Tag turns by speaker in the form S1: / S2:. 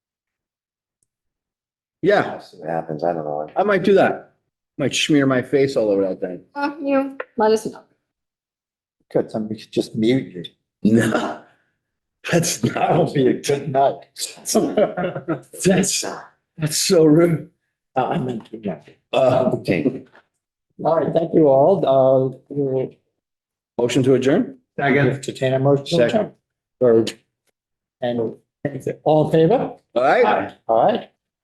S1: Yeah,
S2: See what happens. I don't know.
S1: I might do that. Might smear my face all over that thing.
S3: Uh, you, let us know.
S2: Good, somebody could just mute you.
S1: No, that's
S2: That
S1: not,
S2: would be a good night.
S1: that's, that's so rude.
S2: I'm in. yeah.
S1: Uh,
S2: Okay. All right, thank you all. Uh, we'll
S1: motion to adjourn?
S2: entertain a motion.
S1: Second.
S2: Or, and all in favor?
S1: All right.
S2: All right,